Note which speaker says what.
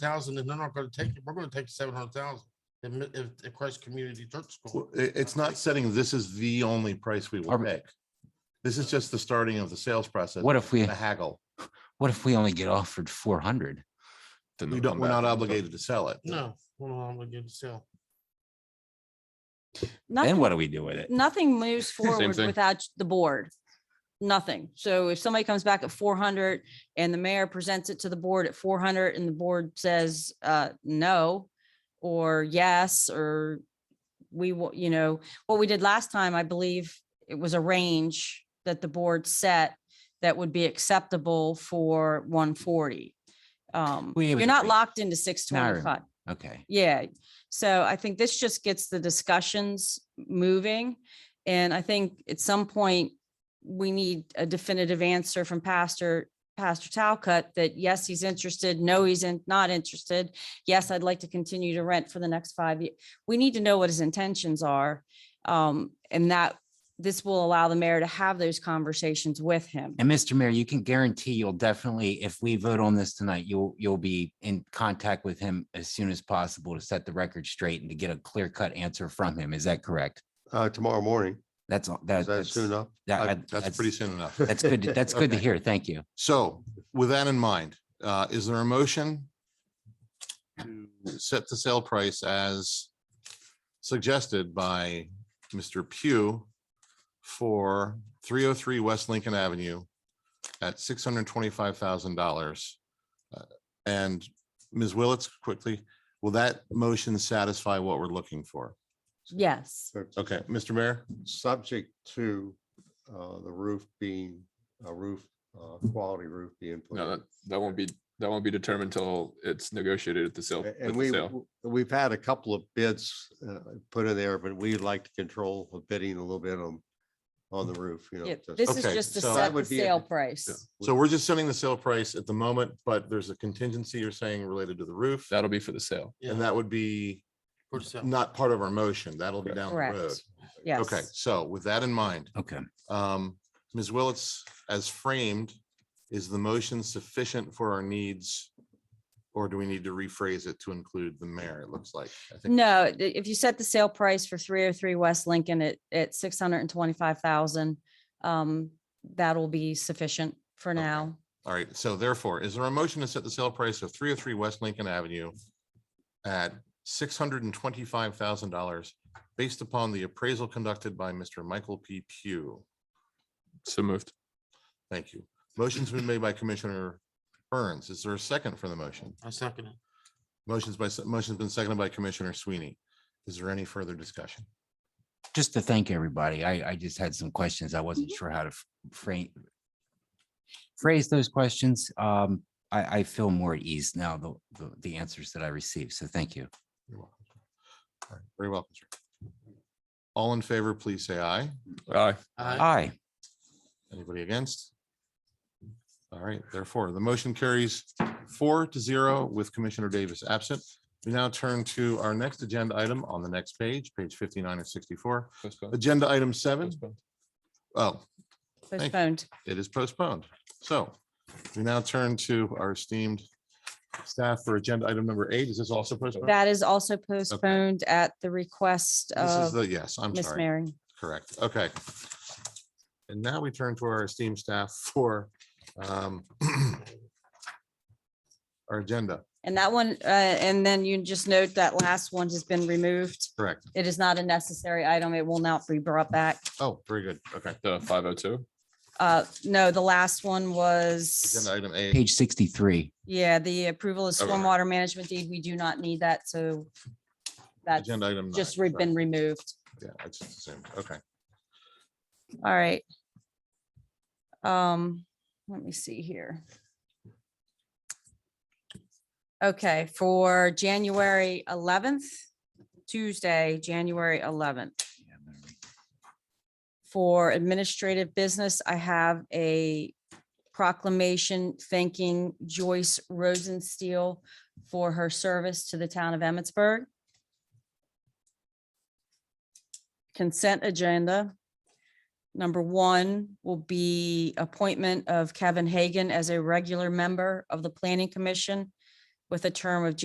Speaker 1: thousand and they're not gonna take it, we're gonna take seven hundred thousand. If, if, if Christ Community Church School,
Speaker 2: Well, i- it's not setting, this is the only price we will
Speaker 3: Are-
Speaker 2: pick. This is just the starting of the sales process.
Speaker 3: What if we,
Speaker 2: The haggle.
Speaker 3: what if we only get offered four hundred?
Speaker 2: We don't, we're not obligated to sell it.
Speaker 1: no, we're not obligated to sell.
Speaker 3: Then
Speaker 4: Nothing,
Speaker 3: what do we do with it?
Speaker 4: nothing moves forward
Speaker 5: thing.
Speaker 4: without the board. Nothing. So if somebody comes back at four hundred and the mayor presents it to the board at four hundred and the board says, uh, no, or yes, or we will, you know, what we did last time, I believe it was a range that the board set that would be acceptable for one forty. Um,
Speaker 3: Well, yeah, it
Speaker 4: you're
Speaker 3: was a
Speaker 4: not
Speaker 3: range.
Speaker 4: locked into six twenty-five.
Speaker 3: Okay,
Speaker 4: Yeah, so I think this just gets the discussions moving. And I think at some point, we need a definitive answer from Pastor, Pastor Talcutt that yes, he's interested, no, he's in- not interested. Yes, I'd like to continue to rent for the next five years. We need to know what his intentions are. Um, and that this will allow the mayor to have those conversations with him.
Speaker 3: and Mr. Mayor, you can guarantee you'll definitely, if we vote on this tonight, you'll, you'll be in contact with him as soon as possible to set the record straight and to get a clear cut answer from him. Is that correct?
Speaker 6: Uh, tomorrow morning.
Speaker 3: That's, all.
Speaker 6: Is
Speaker 3: that-
Speaker 6: that
Speaker 3: that's,
Speaker 6: soon enough?
Speaker 3: that- I-
Speaker 2: I- Uh, That's pretty soon enough.
Speaker 3: That's good, to- that's good to
Speaker 2: Okay.
Speaker 3: hear. Thank you.
Speaker 2: So with that in mind, uh, is there a motion to set the sale price as suggested by Mr. Pugh for three oh three West Lincoln Avenue at six hundred twenty-five thousand dollars? Uh, And Ms. Willetts, quickly, will that motion satisfy what we're looking for?
Speaker 4: Yes,
Speaker 6: So,
Speaker 2: Okay, Mr. Mayor?
Speaker 6: Subject to, uh, the roof being, a roof, uh, quality roof being. put
Speaker 5: No,
Speaker 6: in.
Speaker 5: that, that won't be, that won't be determined until it's negotiated at the sale.
Speaker 6: A-
Speaker 5: at
Speaker 6: And
Speaker 5: the
Speaker 6: we,
Speaker 5: sale.
Speaker 6: we've had a couple of bids, uh, put in there, but we'd like to control the bidding a little bit on, on the roof, you know.
Speaker 4: Mm. Yeah,
Speaker 6: just-
Speaker 4: this is
Speaker 2: Okay,
Speaker 4: just to
Speaker 2: so that
Speaker 4: set the
Speaker 6: would be a-
Speaker 4: sale price.
Speaker 2: So we're just setting the sale price at the moment, but there's a contingency you're saying related to the roof?
Speaker 5: That'll be for the sale.
Speaker 1: Yeah,
Speaker 2: And that would be
Speaker 1: for sale.
Speaker 2: not part of our motion. That'll be down the road.
Speaker 4: Correct. Yes.
Speaker 2: Okay, so with that in mind,
Speaker 3: Okay.
Speaker 2: um, Ms. Willetts, as framed, is the motion sufficient for our needs? Or do we need to rephrase it to include the mayor? It looks like. I think-
Speaker 4: No, i- if you set the sale price for three oh three West Lincoln at, at six hundred and twenty-five thousand, um, that'll be sufficient for
Speaker 2: Okay.
Speaker 4: now.
Speaker 2: All right, so therefore, is there a motion to set the sale price of three oh three West Lincoln Avenue at six hundred and twenty-five thousand dollars based upon the appraisal conducted by Mr. Michael P. Pugh?
Speaker 5: So moved.
Speaker 2: Thank you. Motion's been made by Commissioner Burns. Is there a second for the motion?
Speaker 1: I second it.
Speaker 2: Motion's by, motion's been seconded by Commissioner Sweeney. Is there any further discussion?
Speaker 3: just to thank everybody. I, I just had some questions. I wasn't sure how to f- frame phrase those questions. Um, I, I feel more at ease now, the- the, the answers that I received. So thank you.
Speaker 2: You're welcome. sir. All right, Very welcome. sir. All in favor, please say aye.
Speaker 5: Aye.
Speaker 1: Aye.
Speaker 3: Aye.
Speaker 2: Anybody against? All right, therefore, the motion carries four to zero with Commissioner Davis absent. We now turn to our next agenda item on the next page, page fifty-nine and sixty-four.
Speaker 5: Postpone.
Speaker 2: Agenda item seven.
Speaker 5: Postpone.
Speaker 2: Oh, you.
Speaker 4: Postponed.
Speaker 2: it is postponed. So we now turn to our esteemed staff for agenda item number eight. Is this also postponed?
Speaker 4: That is also postponed at the request
Speaker 2: This is
Speaker 4: of
Speaker 2: the, yes, I'm
Speaker 4: Miss
Speaker 2: sorry.
Speaker 4: Mary.
Speaker 2: Correct. Okay. And now we turn to our esteemed staff for um, our agenda.
Speaker 4: And that one, uh, and then you just note that last one has been removed.
Speaker 2: Correct.
Speaker 4: It is not a necessary item. It will not be brought back.
Speaker 2: Oh, very good. Okay.
Speaker 5: The five oh two.
Speaker 4: Uh, no, the last one was.
Speaker 2: Agenda item eight.
Speaker 3: Page sixty-three.
Speaker 4: Yeah, the approval of
Speaker 2: Okay.
Speaker 4: stormwater management deed, we do not need that, so that's
Speaker 2: Agenda item. nine,
Speaker 4: just re-
Speaker 2: sorry.
Speaker 4: been removed.
Speaker 2: Yeah, I just assumed. Okay.
Speaker 4: All right. Um, let me see here. Okay, for January eleventh, Tuesday, January eleventh. For administrative business, I have a proclamation thanking Joyce Rosensteel for her service to the town of Emmitsburg. Consent agenda. Number one will be appointment of Kevin Hagan as a regular member of the Planning Commission with a term of